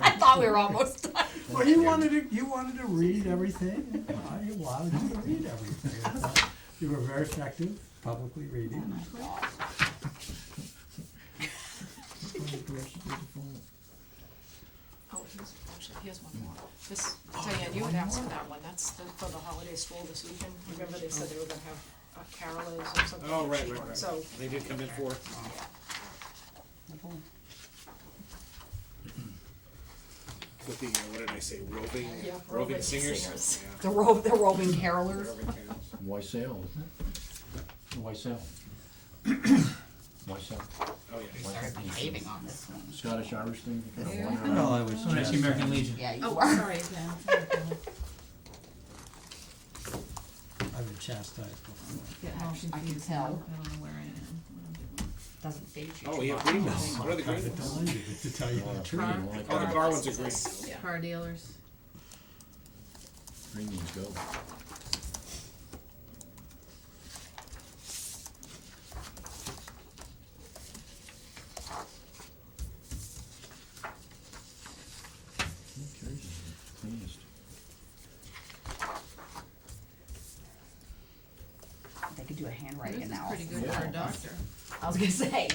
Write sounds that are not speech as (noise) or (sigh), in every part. I thought we were almost done. Well, you wanted to, you wanted to read everything, Well, you wanted to read everything. You were very effective publicly reading. Oh, here's, actually, here's one more. This, Diane, you had asked for that one, that's the, for the holiday stroll this evening. Remember they said they were gonna have uh, carolers or something? Oh, right, cheap right, one. right. So, They did come in for, with the, uh, what did I say, roving, Yeah, roving roving singers? singers. Yeah, the ro- the roving carolers. roving singers. Why sell, isn't it? Why sell? Why sell? Oh, yeah. Why Started sell? behaving on this one. Scottish Irish thing? you kinda Yeah. wonder. I was just. American Legion. Yeah, you Oh, are. sorry, I've been chastised before. I can tell. I don't know where I am. Doesn't phase you. Oh, yeah, green ones, what are the green I've ones? done you, to tell you the truth. Premium, like Oh, the that. car ones are green. Yeah. Car dealers. Premiums go. Who cares? Cleanest. They could do a handwriting This is pretty analysis. good for a doctor. I was gonna say.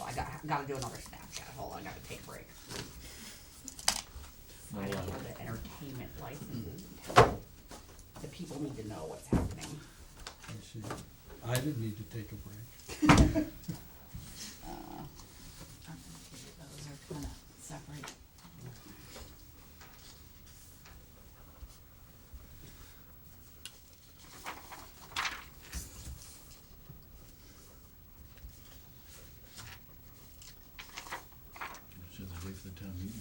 Oh, I got, gotta do another Snapchat, hold on, I gotta take a break. Not I allowed. know the entertainment licenses in town. The people need to know what's happening. And she- I didn't need to take a break. Those are kinda separate. So they wait for the town meeting.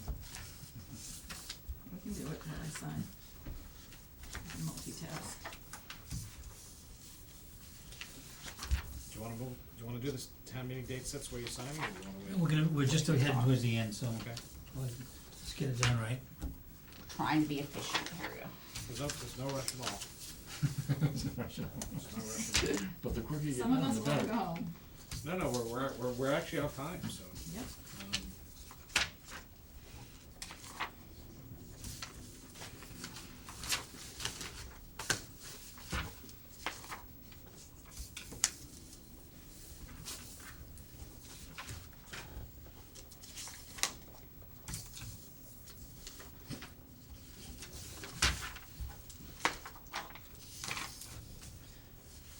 We can do it while I sign. Multitask. Do you wanna move, do you wanna do this town meeting date sets where you sign, or do you wanna We're wait? gonna, we're just heading towards the end, so Okay, let's get it done right. Trying to be efficient, here we go. there's no, there's no rush at all, there's no rush at all. But the quicker you get Some of done, us the wanna better. go home. No, no, we're, we're, we're, we're actually off time, so. Yep. um,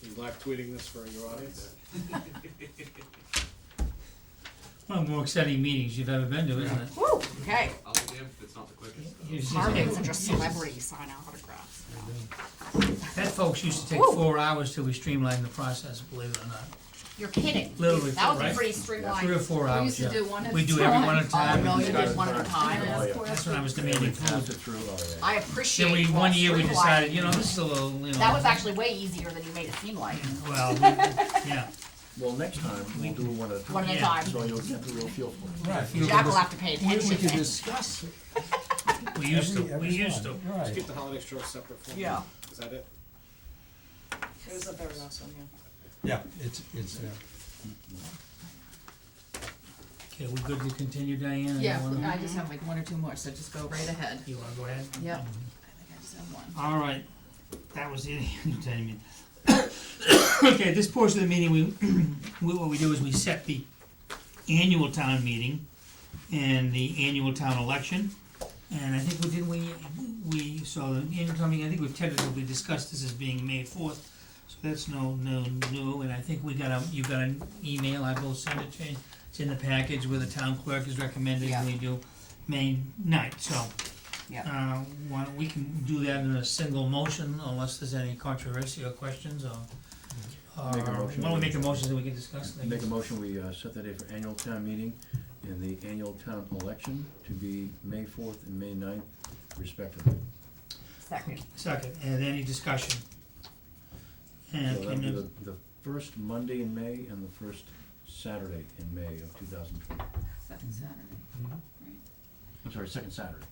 You live tweeting this for your audience? One of the more exciting meetings you've ever been to, isn't it? Woo, okay. I'll be damned if it's not the quickest. You see- Hard days are just celebrities sign autographs. That folks used to take Woo. four hours till we streamlined the process, believe it or not. You're kidding. Literally, That was right? a pretty Three or streamlined. four We hours, used to yeah. do one at a time. We do every one (laughs) at a Oh, time. no, you did one at a Oh, time. That's what I was They demanding. pass it through, oh yeah. I Then appreciate we, you all one year we decided, streamlining. you know, this is a little, you know. That was actually way easier than you made it seem like. Well, we- yeah. Well, next time, we'll do one at a One time, at a Yeah. time. so you'll get the real feel for it. Right. Jack will have to pay We we attention could then. discuss We used to, every, we every used to. one, Just right. keep the holiday stroll separate for me. Yeah. Is that it? It was the very last one, yeah. Yeah, it's, it's there. Okay, we good to continue, Diane? Yeah, You wanna- I just have like one or two more, so just go right ahead. You wanna go ahead? Yep. I think I just have one. All right, that was the (laughs) entertainment. (coughs) Okay, at this portion of the meeting, we, (clears throat) we- what we do is we set the annual town meeting and the annual town election. And I think we did, we, we, so the incoming, I think we've tentatively discussed this as being May fourth. So that's no, no, new. and I think we got a, you got an email, I will send it to you. It's in the package where the town clerk is recommending Yeah. we do May ninth, so. Yeah. Uh, why don't we can do that in a single motion unless there's any controversy or questions or. or- Make a motion. Why don't we make a motion so we can discuss Make a things? motion, we uh, set that day for annual town meeting and the annual town election to be May fourth and May 9th, respectively. Second. Second, and any discussion? So And that'll can be you, the, the first Monday in May and the first Saturday in May of two thousand twenty. Second Saturday. I'm sorry, second Saturday.